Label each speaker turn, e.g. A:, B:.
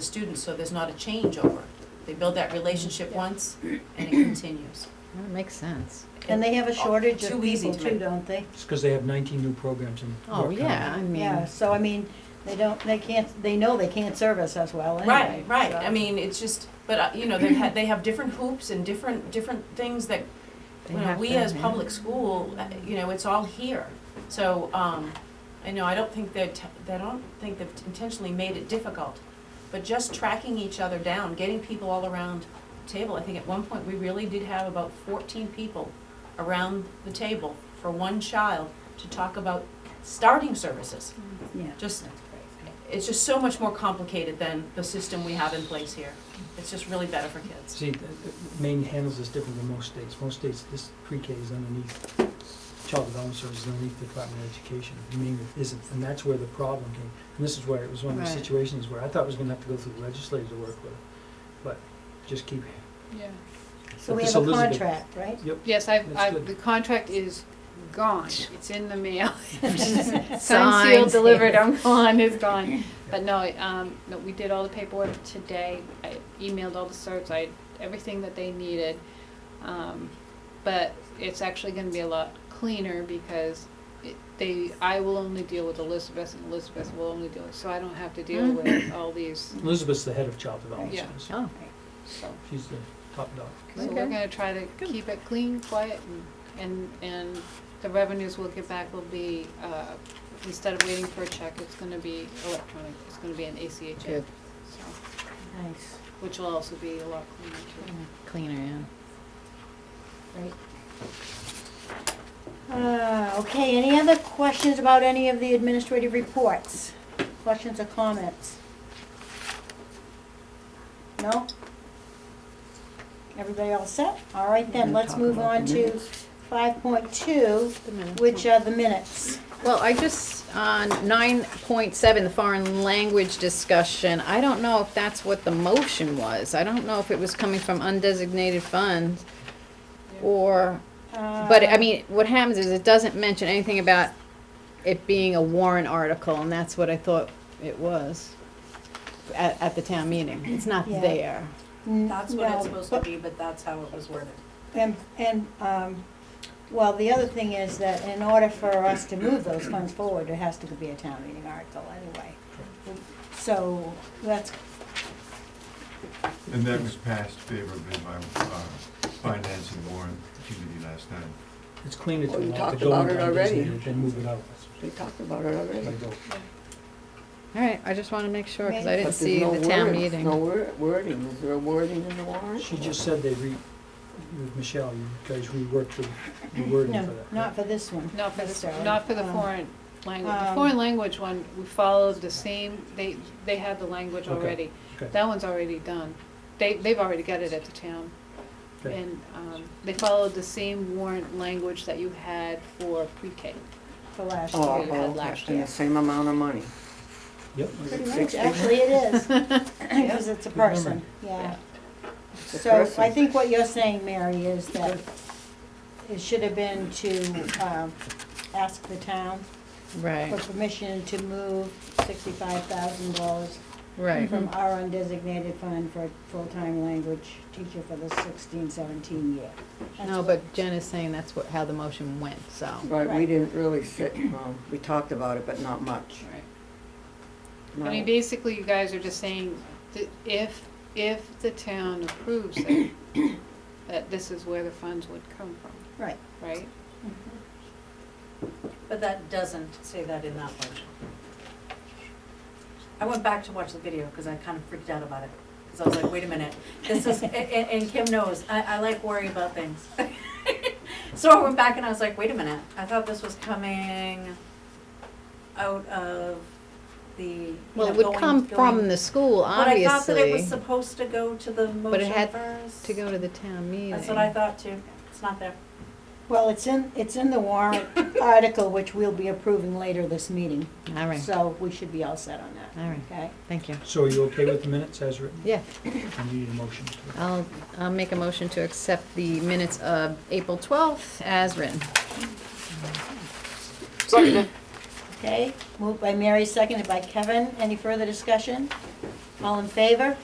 A: the students, so there's not a changeover. They build that relationship once and it continues.
B: That makes sense.
C: And they have a shortage
A: Too
C: of
A: easy
C: people
A: to
C: too,
A: make.
C: don't they?
D: It's because they have 19 new programs in.
B: Oh,
D: York County.
B: yeah, I
C: Yeah,
B: mean,
C: so I mean, they don't, they can't, they know they can't serve us as well anyway.
A: Right, right,
C: so-
A: I mean, it's just, but, uh, you know, they have, they have different hoops and different, different things that,
B: They
A: you know,
B: have
A: we
B: to,
A: as
B: yeah.
A: public school, uh, you know, it's all here. So, um, I know, I don't think they're, t- they don't think they've intentionally made it difficult, but just tracking each other down, getting people all around the table, I think at one point, we really did have about fourteen people around the table for one child to talk about starting services.
B: Mm-hmm.
C: Yeah.
A: Just it's just so much more complicated than the system we have in place here. It's just really better for kids.
D: See, th- th- Maine handles this different than most states. Most states, this pre-K is underneath, child development services underneath the Department of Education. Maine isn't, and that's where the problem came. And this is where, it was one of those
B: Right.
D: situations where I thought I was gonna have to go through the legislature to work with, it, but just keep,
E: Yeah.
C: So
D: But
C: we
D: this
C: have a
D: Elizabeth-
C: contract, right?
D: yep.
E: Yes, I've,
D: That's
E: I've,
D: good.
E: the contract is gone. It's in the mail. Signed,
B: Signs,
E: sealed, delivered,
B: yeah.
C: um.
E: I'm gone, it's gone. But no, I, um, no, we did all the paperwork today. I emailed all the certs, I, everything that they needed. Um, but it's actually gonna be a lot cleaner because it, they, I will only deal with Elizabeth and Elizabeth will only deal, so I don't have to deal with all these,
D: Elizabeth's the head of child development
E: Yeah.
D: services.
B: oh,
E: so.
D: She's the top dog.
E: So we're gonna try to keep it clean, quiet, and, and, and the revenues we'll get back will be, uh, instead of waiting for a check, it's gonna be electronic, it's gonna be an ACH
B: Good.
E: app, so,
C: Nice,
E: which will also be a lot cleaner too.
B: cleaner,
C: great. Uh, okay, any other questions about any of the administrative reports? Questions or comments? No? Everybody all set? All right then, let's move on to five point two,
B: yeah.
C: which are the minutes.
B: Well, I just, on nine point seven, the foreign language discussion, I don't know if that's what the motion was. I don't know if it was coming from undesignated funds or, but I
C: Uh,
B: mean, what happens is it doesn't mention anything about it being a warrant article, and that's what I thought it was at, at the town meeting. It's not
C: Yeah.
B: there.
C: n-
F: That's what
C: no,
F: it's supposed to be, but that's how it was worded.
C: And, and, um, well, the other thing is that in order for us to move those funds forward, it has to be a town meeting article anyway. So that's,
G: And that was passed favorably by uh, Finance and Warren Committee last night.
D: It's cleaner to
H: Well, we
D: have to
H: talked
D: go
H: about
D: into
H: it already.
D: undesignated, then move it out.
H: We talked about it already.
D: Like, go.
B: All right, I just wanna make sure, cause I
H: But
B: didn't
H: there's
B: see
H: no
B: the town
H: word-
B: meeting.
H: No wor- wording, is there a wording in the warrant?
D: She just said they re, with Michelle, you guys reworked the the wording for
C: no,
D: that.
C: not for this one.
E: Not for the,
C: necessarily.
E: not for the
C: Um,
E: foreign language, the
C: um,
E: foreign language one, we followed the same, they, they had the language
D: Okay,
E: already.
D: okay.
E: That one's already done, they, they've already got it at the town.
D: Okay.
E: And, um, they followed the same warrant language that you had for pre-K.
C: For last
H: Oh,
E: we
C: year.
E: had
H: oh,
E: last
H: and
E: year.
H: the same amount of money.
D: Yep.
C: Pretty much,
H: Sixty.
C: actually it is, because it's a person, yeah.
H: It's a
C: So I
H: person.
C: think what you're saying, Mary, is that it should have been to, um, ask the town
B: Right,
C: for permission to move sixty-five thousand dollars
B: right.
C: from our undesignated fund for full-time language teacher for the 16-17 year. That's
B: No,
C: what-
B: but Jen is saying that's what, how the motion went, so.
H: Right, we
C: Right.
H: didn't really sit, um, we talked about it, but not much.
E: Right.
H: No.
E: I mean, basically, you guys are just saying that if, if the town approves it, that this is where the funds would come from,
C: Right.
E: right?
F: But that doesn't say that in that motion. I went back to watch the video because I kind of freaked out about it. Because I was like, wait a minute, this is, and, and Kim knows, I, I like worry about things. So I went back and I was like, wait a minute, I thought this was coming out of the, you
B: Well,
F: know,
B: it would
F: going-
B: come
F: going-
B: from the school, obviously.
F: But I thought that it was supposed to go to the
B: it
F: motion
B: had
F: first.
B: To go to the town meeting.
F: That's what I thought too. It's not there.
C: Well, it's in, it's in the warrant article, which we'll be approving later this meeting.
B: All right,
C: So we should be all set on that,
B: all right,
C: okay?
B: thank you.
D: So are you okay with the minutes as written?
B: Yeah,
D: And you need a motion to
B: I'll, I'll make a motion to accept the minutes of April twelfth as written.
C: Okay, moved by Mary, seconded by Kevin. Any further discussion? All in favor?